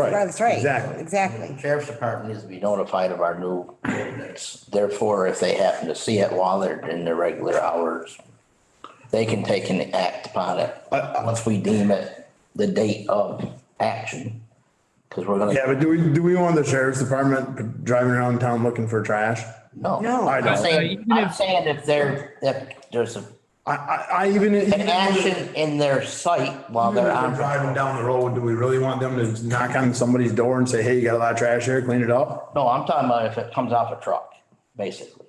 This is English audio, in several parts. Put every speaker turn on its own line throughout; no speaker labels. Right.
That's right.
Exactly.
Exactly.
Sheriff's Department needs to be notified of our new ordinance. Therefore, if they happen to see it while they're in their regular hours, they can take an act upon it. Once we deem it the date of action, because we're gonna.
Yeah, but do we, do we want the sheriff's department driving around town looking for trash?
No.
No.
I
I'm
don't.
saying, I'm saying if there, if there's a-
I, I, I even.
an action in their sight while they're
They're
on,
driving down the road. Do we really want them to knock on somebody's door and say, hey, you got a lot of trash here, clean it up?
no, I'm talking about if it comes off a truck, basically.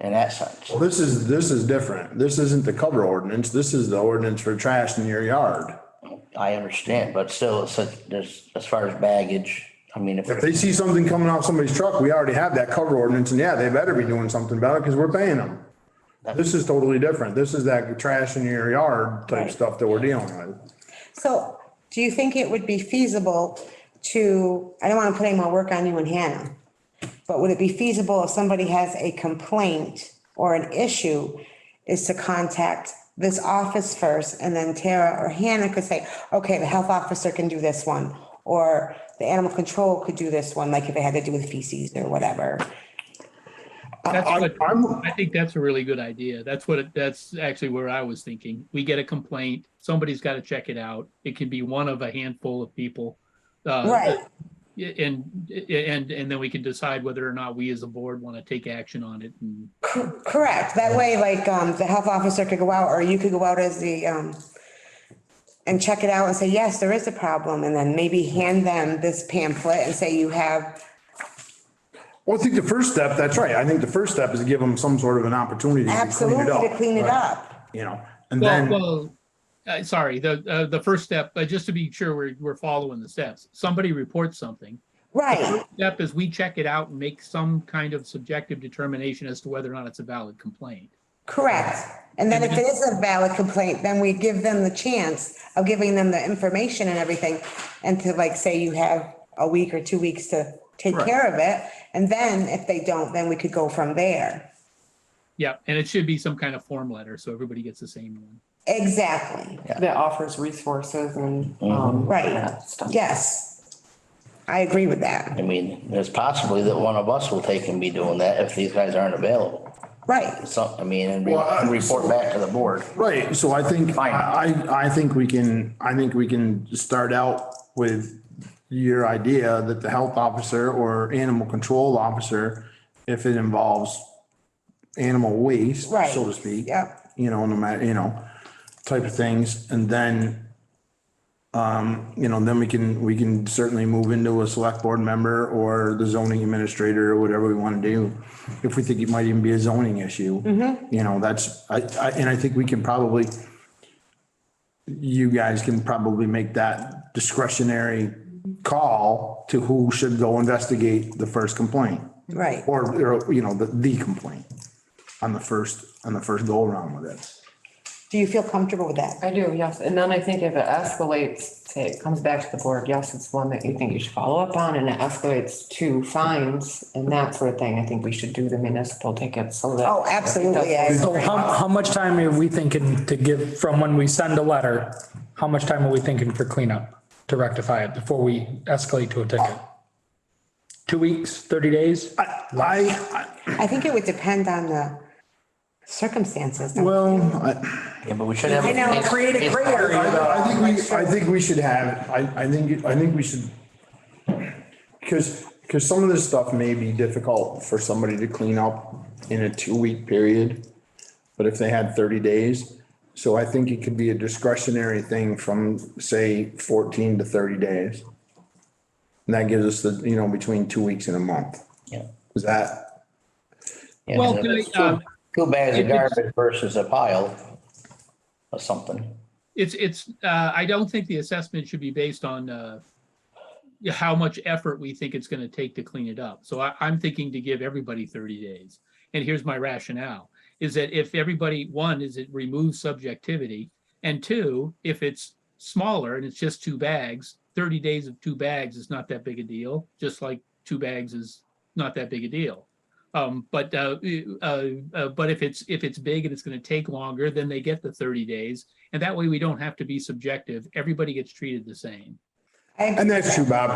In that sense,
Well, this is, this is different. This isn't the cover ordinance. This is the ordinance for trash in your yard.
I understand, but still, it's, a- there's, as far as baggage, I mean, if.
If they see something coming off somebody's truck, we already have that cover ordinance and yeah, they better be doing something about it because we're paying them. This is totally different. This is that trash in your yard type stuff that we're dealing with.
So do you think it would be feasible to, I don't want to put any more work on you and Hannah, but would it be feasible if somebody has a complaint or an issue is to contact this office first and then Tara or Hannah could say, okay, the health officer can do this one. Or the animal control could do this one, like if it had to do with feces or whatever.
That's
I-
what,
I'm-
I think that's a really good idea. That's what, it- that's actually where I was thinking. We get a complaint, somebody's got to check it out. It can be one of a handful of people. uh,
Right.
And, and, and then we can decide whether or not we as a board want to take action on it. And
Correct. That way, like, um, the health officer could go out or you could go out as the, um, and check it out and say, yes, there is a problem. And then maybe hand them this pamphlet and say you have,
Well, I think the first step, that's right. I think the first step is to give them some sort of an opportunity to clean
absolutely
it up.
to clean it up.
You know, and
Well,
then,
well, uh, sorry, the, uh, the first step, but just to be sure we're, we're following the steps. Somebody reports something.
Right,
Step is we check it out and make some kind of subjective determination as to whether or not it's a valid complaint.
correct. And then if it is a valid complaint, then we give them the chance of giving them the information and everything. And to like, say you have a week or two weeks to take care of it. And then if they don't, then we could go from there.
Yeah, and it should be some kind of form letter, so everybody gets the same one.
Exactly.
that offers resources and,
Mm-hmm.
um.
Right.
that stuff.
Yes. I agree with that.
I mean, there's possibly that one of us will take and be doing that if these guys aren't available.
Right.
So, I mean, and re-
Well, I-
and report back to the board.
right, so I think,
Fine.
I, I- I think we can, I think we can start out with your idea that the health officer or animal control officer, if it involves animal waste,
Right.
so to speak.
Yep.
You know, no matter, you know, type of things, and then um, you know, then we can, we can certainly move into a select board member or the zoning administrator or whatever we want to do. If we think it might even be a zoning issue, you know, that's, I, I, and I think we can probably, you guys can probably make that discretionary call to who should go investigate the first complaint
Right.
or, or, you know, the, the complaint on the first, on the first go around with it.
Do you feel comfortable with that?
I do, yes. And then I think if it escalates, say it comes back to the board, yes, it's one that you think you should follow up on and it escalates to fines and that sort of thing. I think we should do the municipal tickets so that.
Oh, absolutely. I
So
agree.
how, how much time are we thinking to give from when we send a letter? How much time are we thinking for cleanup to rectify it before we escalate to a ticket? Two weeks, 30 days?
I,
I think it would depend on the circumstances.
well, I,
Yeah, but we should have.
I know,
it's-
create a
it's-
gray area.
I think we, I think we should have, I, I think, I think we should, because, because some of this stuff may be difficult for somebody to clean up in a two-week period, but if they had thirty days, so I think it could be a discretionary thing from, say, fourteen to thirty days. And that gives us the, you know, between two weeks and a month.
Yeah.
Is that,
yeah,
Well,
and
can
it's
I, um,
two- Two bags of
if it's-
garbage versus a pile or something.
It's, it's, uh, I don't think the assessment should be based on, uh, how much effort we think it's gonna take to clean it up. So I, I'm thinking to give everybody thirty days. And here's my rationale, is that if everybody, one, is it removes subjectivity? And two, if it's smaller and it's just two bags, thirty days of two bags is not that big a deal, just like two bags is not that big a deal. Um, but, uh, uh, uh, but if it's, if it's big and it's gonna take longer, then they get the thirty days. And that way we don't have to be subjective. Everybody gets treated the same.
I agree.
And that's true, Bob.